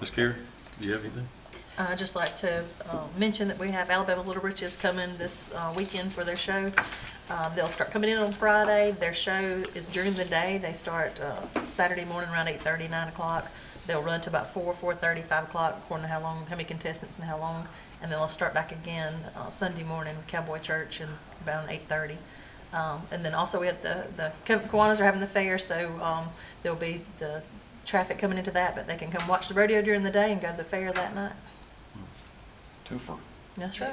Ms. Carey, do you have anything? I'd just like to uh, mention that we have Alabama Little Riches coming this uh, weekend for their show. Uh, They'll start coming in on Friday. Their show is during the day. They start uh, Saturday morning around 8:30, 9 o'clock. They'll run to about 4, 4:30, 5 o'clock, according to how long, how many contestants and how long. And then they'll start back again uh, Sunday morning with Cowboy Church and about 8:30. Um, And then also we have the, the Ka- Kiwanis are having the fair, so um, there'll be the traffic coming into that, but they can come watch the rodeo during the day and go to the fair that night. Two for. That's right.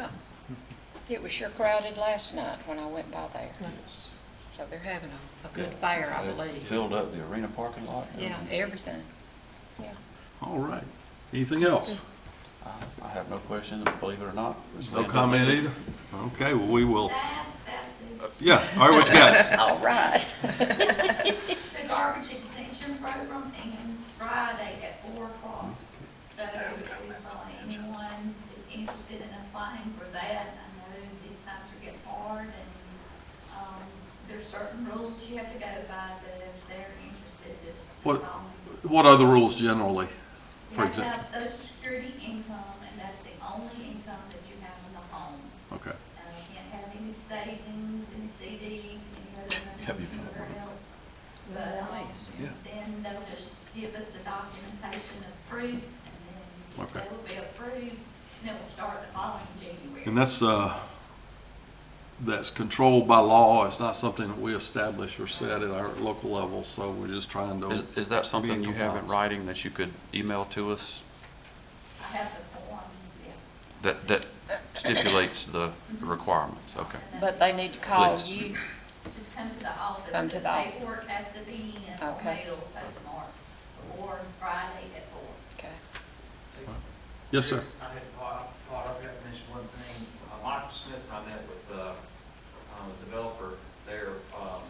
Yeah. It was sure crowded last night when I went by there. Yes. So they're having a, a good fair, I believe. Filled up the arena parking lot. and Yeah, everything. everything. Yeah. All right. Anything else? I- I have no questions, believe it or not. It's No been- comment either? Okay, well, we will. Yeah, all right, what you got? All right. The garbage extension program ends Friday at four o'clock. So if uh, anyone is interested in applying for that, I know these times are getting hard and, um, there's certain rules you have to go by, but if they're interested, just. What- um, What are the rules generally? You For have to example? have social security income and that's the only income that you have in the home. Okay. Uh, you can't have any savings, any CDs, any other money. Have you found anywhere one? else. But, um, Nice. Yeah. then they'll just give us the documentation of proof, and then Okay. they will be approved, and then we'll start the following January. And that's, uh, that's controlled by law. It's not something that we establish or set at our local level, so we're just trying to. Is, is that something you have in compliance. writing that you could email to us I have the form, yeah. that, that stipulates the requirements? Okay. And But then they need to call Please. you. Just come to the office. Come to the office. Paperwork has to be in, or Okay. mail, postmark, or Friday at four. Okay. Yes, sir. I had caught, caught up, I mentioned one thing, Uh, Michael Smith and I met with, uh, um, the developer there, um,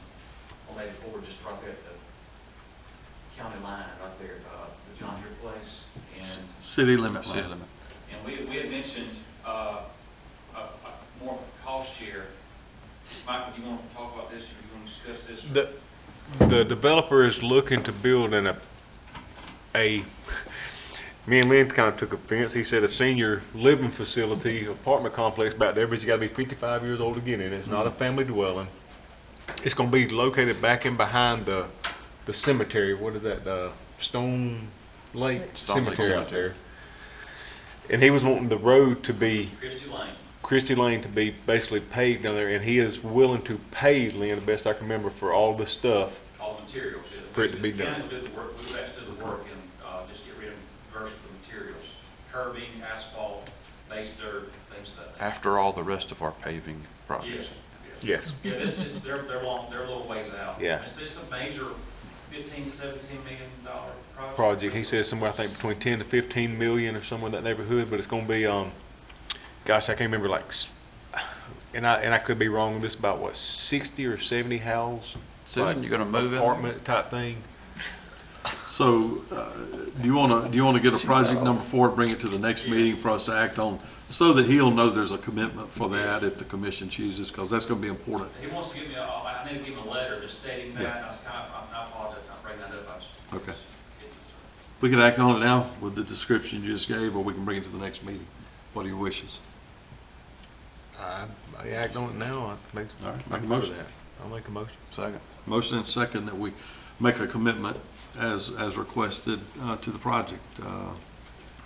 on Lady Ford, just right there at the county line, right there, uh, the John Deere place, and City limit City line. limit. and we, we had mentioned, uh, a, a more of a cost share. Michael, do you want to talk about this, or you want to discuss this? or- The, the developer is looking to build in a, a, me and Lynn kind of took offense. He said a senior living facility, apartment complex back there, but you gotta be fifty-five years old again, and it's Mm-hmm. not a family dwelling. It's gonna be located back in behind the, the cemetery, what is that, uh, Stone Lake Stone Lake Cemetery out Cemetery. there. And he was wanting the road to be Christie Lane. Christie Lane to be basically paved down there, and he is willing to pay, Lynn, the best I can remember, for all the stuff. all the materials. yeah. For it to be The done. county will do the work, we'll actually do the work and, uh, just get rid of, verse the materials, curbing, asphalt, base dirt, things of that. After all the rest of our paving Yes, projects. yes. Yes. Yeah, this is, they're, they're long, they're a little ways out. Yeah. Is this a major fifteen, seventeen million dollar project? Project, he says somewhere, I think between ten to fifteen million or somewhere in that neighborhood, but it's gonna be, um, gosh, I can't remember, like, s- and I, and I could be wrong, this about, what, sixty or seventy house? Susan, like, you gonna move in? Apartment type thing. So, uh, do you wanna, do you wanna get a She's project out. number four, bring it to the next Yeah. meeting for us to act on? So that he'll know there's a commitment for that if the commission chooses, cause that's gonna be important. He wants to give me a, I need to give him a letter just stating Yeah. that, I was kind of, I apologize, I'm bringing that up, I was. Okay. We can act on it now with the description you just gave, or we can bring it to the next meeting. What are your wishes? I, I act on it now, I make, All right, make a I can motion. do that. I'll make a motion. Second. Motion and second that we make a commitment as, as requested, uh, to the project. Uh,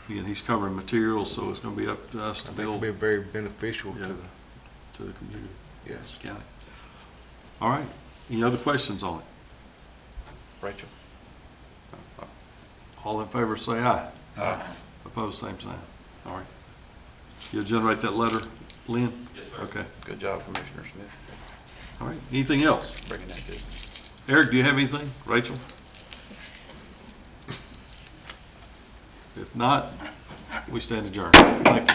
Again, he's covering materials, so it's gonna be up to us I to think it'll build be to very beneficial to Yeah. the, the community, yes. the county. All right, any other questions on it? Rachel? All in favor, say aye. Aye. Opposed, same sign. All right. You'll generate that letter, Lynn? Yes, sir. Okay, Good job, Commissioner Smith, all right. Anything else? bringing that business. Eric, do you have anything? Rachel? If not, we stand adjourned. Thank you.